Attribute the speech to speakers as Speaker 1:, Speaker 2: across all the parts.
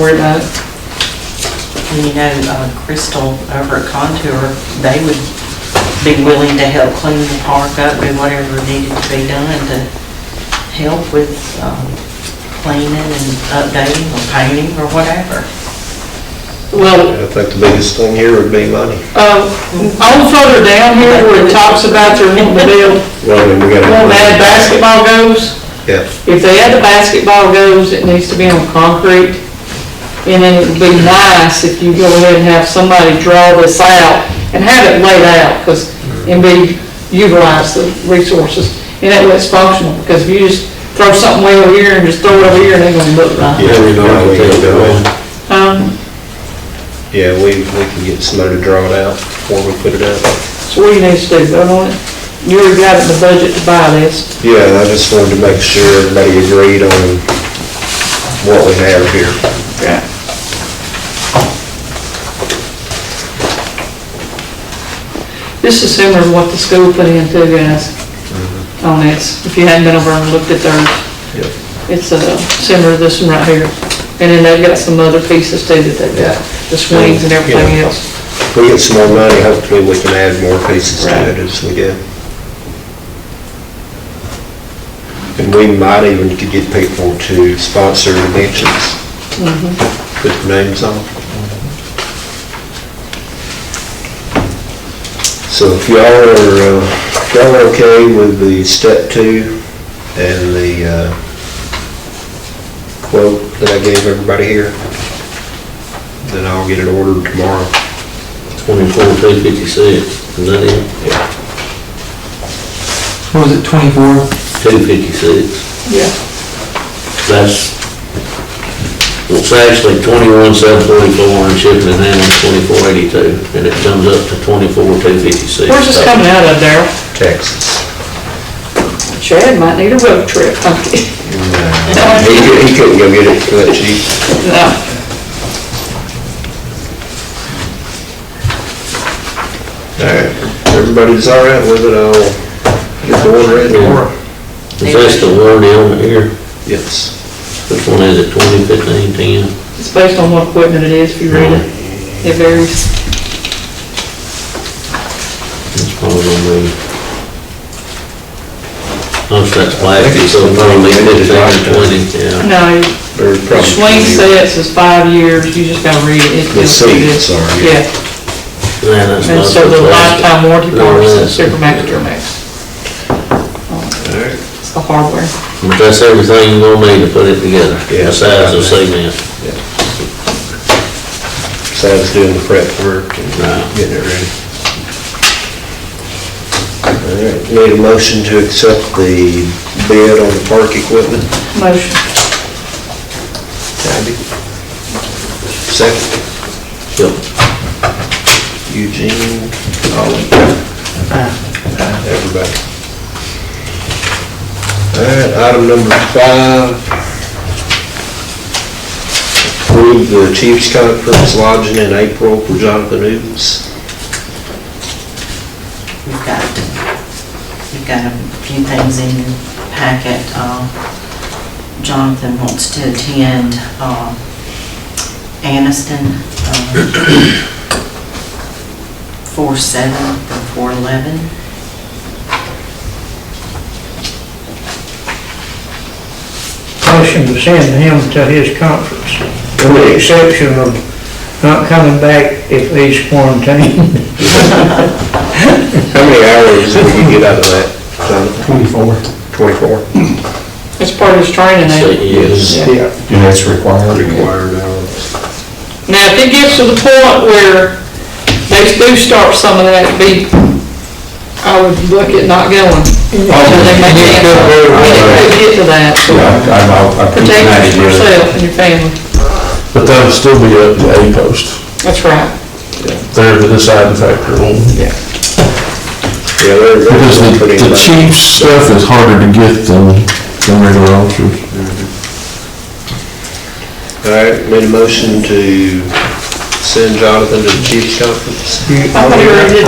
Speaker 1: Where the, you know, uh, Crystal over at Contour, they would be willing to help clean the park up and whatever needed to be done to help with um, cleaning and updating or painting or whatever.
Speaker 2: Well,
Speaker 3: I think the biggest thing here would be money.
Speaker 2: uh, on further down here where it talks about they're wanting to build,
Speaker 3: Well, I mean, we gotta.
Speaker 2: wanting to add basketball goals,
Speaker 3: Yeah,
Speaker 2: if they add the basketball goals, it needs to be on concrete. And then it'd be nice if you go ahead and have somebody draw this out and have it laid out, because, and be, utilize the resources. And that way it's functional, because if you just throw something way over here and just throw it over here, it ain't gonna look right.
Speaker 3: yeah, we know how we can do it.
Speaker 2: Um,
Speaker 3: Yeah, we, we can get somebody to draw it out before we put it up.
Speaker 2: so what do you need to do, vote on it? You already got it in the budget to buy this.
Speaker 3: Yeah, I just wanted to make sure everybody agreed on what we have here.
Speaker 2: Yeah. This is similar to what the school put in too, guys, on this, if you hadn't been over and looked at theirs.
Speaker 3: Yep.
Speaker 2: It's uh, similar to this one right here, and then they've got some other pieces too that they've got, the swings and everything
Speaker 3: Yeah.
Speaker 2: else.
Speaker 3: If we get some more money, hopefully we can add more pieces to it as we go. And we might even could get people to sponsor events, put their names on. So if y'all are, uh, if y'all are okay with the step two and the uh, quote that I gave everybody here, then I'll get it ordered tomorrow.
Speaker 4: Twenty-four, three fifty-six, is that it?
Speaker 5: What was it, 24?
Speaker 4: Two fifty-six,
Speaker 2: Yeah.
Speaker 4: that's, it's actually twenty-one, seven forty-four, and shipping and handling twenty-four, eighty-two, and it comes up to twenty-four, two fifty-six.
Speaker 2: Where's this coming out of, Darryl?
Speaker 3: Texas.
Speaker 2: Chad might need a road trip, okay?
Speaker 3: He could- he couldn't go get it for that cheap.
Speaker 2: No.
Speaker 3: All right, everybody's all right with it, I'll get the order in tomorrow.
Speaker 4: Is this the one down here?
Speaker 3: Yes.
Speaker 4: Which one is it, twenty, fifteen, ten?
Speaker 2: It's based on what equipment it is, if you read it, it varies.
Speaker 4: That's probably gonna be. Most that's plastic, so probably fifteen, or twenty, yeah.
Speaker 2: No,
Speaker 3: Very
Speaker 2: The
Speaker 3: probably.
Speaker 2: swing sets is five years, you just gotta read it. It
Speaker 3: The
Speaker 2: tells you
Speaker 3: seats
Speaker 2: this.
Speaker 3: are, yeah.
Speaker 2: Yeah,
Speaker 4: Yeah, that's
Speaker 2: and
Speaker 4: not
Speaker 2: so the
Speaker 4: plastic.
Speaker 2: lifetime warranty
Speaker 4: No,
Speaker 2: part is the
Speaker 4: that's-
Speaker 2: Super Max, Duramax.
Speaker 3: All right.
Speaker 2: It's the hardware.
Speaker 4: But that's everything you're gonna need to put it together,
Speaker 3: Yeah.
Speaker 4: besides the cement.
Speaker 3: Sam's doing the prep work and
Speaker 4: Right.
Speaker 3: getting it ready. All right, need a motion to accept the bid on the park equipment?
Speaker 2: Motion.
Speaker 3: Tabby? Second,
Speaker 4: Yep.
Speaker 3: Eugene, Ollie. everybody. All right, item number five. Approve the Chiefs Conference lodging in April for Jonathan Newtons.
Speaker 1: You've got, you've got a few things in your packet. Uh, Jonathan wants to attend um, Anniston, um, 4/7 or 4/11.
Speaker 6: motion to send him to his conference, with the exception of not coming back if he's quarantined.
Speaker 3: How many hours did you get out of that, Jonathan?
Speaker 7: Twenty-four.
Speaker 3: Twenty-four?
Speaker 2: It's part of his training aid.
Speaker 4: Yes.
Speaker 3: Yeah.
Speaker 7: And that's required.
Speaker 3: Required hours.
Speaker 2: Now, if it gets to the point where they do start some of that, it'd be, I would look at not going. So they may cancel. It could get to that.
Speaker 7: Yeah, I'm, I'll, I'll keep an
Speaker 2: Protect
Speaker 7: eye on it.
Speaker 2: yourself and your family.
Speaker 7: But that'll still be up to A post.
Speaker 2: That's right.
Speaker 7: They're the deciding factor on.
Speaker 3: Yeah, they're,
Speaker 7: Because
Speaker 3: they're
Speaker 7: the,
Speaker 3: pretty
Speaker 7: the
Speaker 3: much.
Speaker 7: chief stuff is harder to get than, than regular officers.
Speaker 3: All right, made a motion to send Jonathan to the Chiefs Conference.
Speaker 2: I thought you already did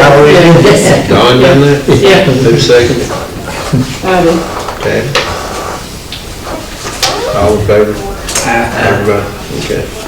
Speaker 2: that.
Speaker 3: Don, you in there?
Speaker 2: Yeah. Yeah.
Speaker 3: Who seconded?
Speaker 2: I did.
Speaker 3: Okay. All in favor? Everybody, okay.